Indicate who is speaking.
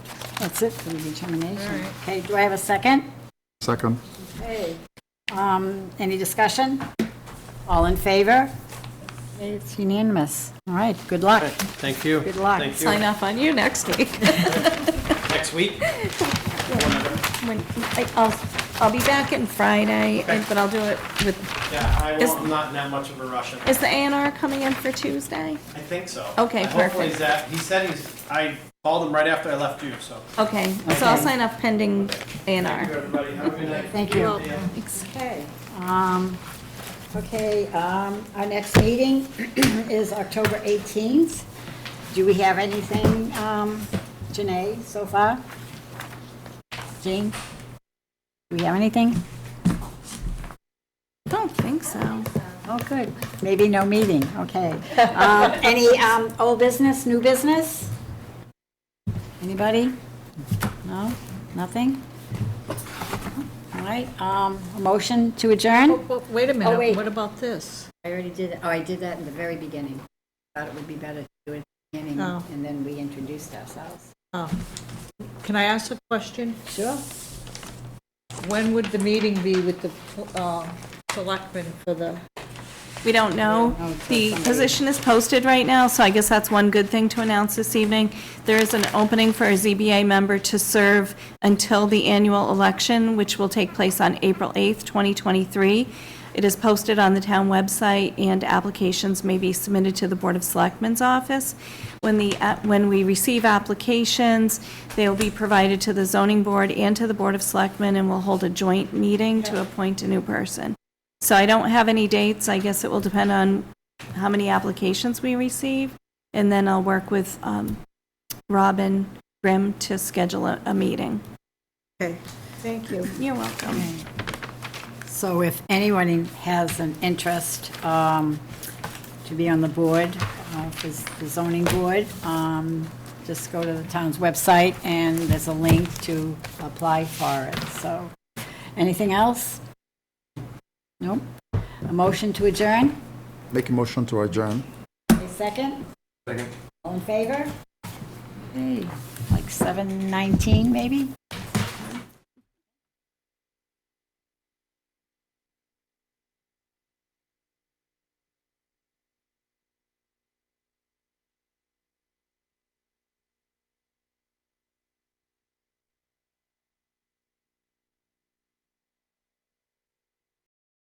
Speaker 1: That's it for the determination.
Speaker 2: All right.
Speaker 1: Okay, do I have a second?
Speaker 3: Second.
Speaker 1: Okay. Um, Any discussion? All in favor? Okay, It's unanimous. All right, good luck.
Speaker 4: Thank you.
Speaker 1: Good luck.
Speaker 4: Thank
Speaker 2: Sign
Speaker 4: you.
Speaker 2: off on you next week.
Speaker 4: Next week?
Speaker 2: When- I- I'll, I'll be back in Friday, and- but I'll do it with,
Speaker 4: Yeah, I
Speaker 2: Is-
Speaker 4: won't, I'm not in that much of a rush. I
Speaker 2: is the A and R coming in for Tuesday?
Speaker 4: think so.
Speaker 2: Okay,
Speaker 4: Hopefully
Speaker 2: perfect.
Speaker 4: Zach, he said he's, I called him right after I left you, so.
Speaker 2: Okay, so I'll sign up pending A
Speaker 4: Thank
Speaker 2: and
Speaker 4: you,
Speaker 2: R.
Speaker 4: everybody. Have a good night.
Speaker 1: Thank you.
Speaker 4: Yeah.
Speaker 1: Okay. um, Okay, um, our next meeting is October 18th. Do we have anything, um, Janae, so far? Jean? Do we have anything?
Speaker 2: Don't think so.
Speaker 1: Oh, good. Maybe no meeting, okay. Uh, Any um, old business, new business? Anybody? No? Nothing? All right, um, a motion to adjourn?
Speaker 5: Well, Oh, wait a
Speaker 1: wait.
Speaker 5: minute, what about this?
Speaker 6: I already did, oh, I did that in the very beginning. Thought it would be better to do it at the beginning,
Speaker 5: Oh.
Speaker 6: and then we introduced ourselves.
Speaker 5: Oh. Can I ask a question?
Speaker 1: Sure.
Speaker 5: When would the meeting be with the uh, selectmen for the,
Speaker 2: We don't know. The position is posted right now, so I guess that's one good thing to announce this evening. There is an opening for a ZBA member to serve until the annual election, which will take place on April 8th, 2023. It is posted on the town website, and applications may be submitted to the Board of Selectmen's office. When the, app- when we receive applications, they will be provided to the zoning board and to the Board of Selectmen, and we'll hold a joint meeting to appoint a new person. So I don't have any dates. I guess it will depend on how many applications we receive. And then I'll work with um, Robin Grimm to schedule a, a meeting.
Speaker 5: okay, thank you.
Speaker 2: You're welcome.
Speaker 1: So if anyone has an interest um, to be on the board, uh, for the zoning board, um, just go to the town's website, and there's a link to apply for it. So, anything else? Nope. A motion to adjourn?
Speaker 3: Make a motion to adjourn.
Speaker 1: A second? Second. All in favor? Okay, Like 7:19, maybe?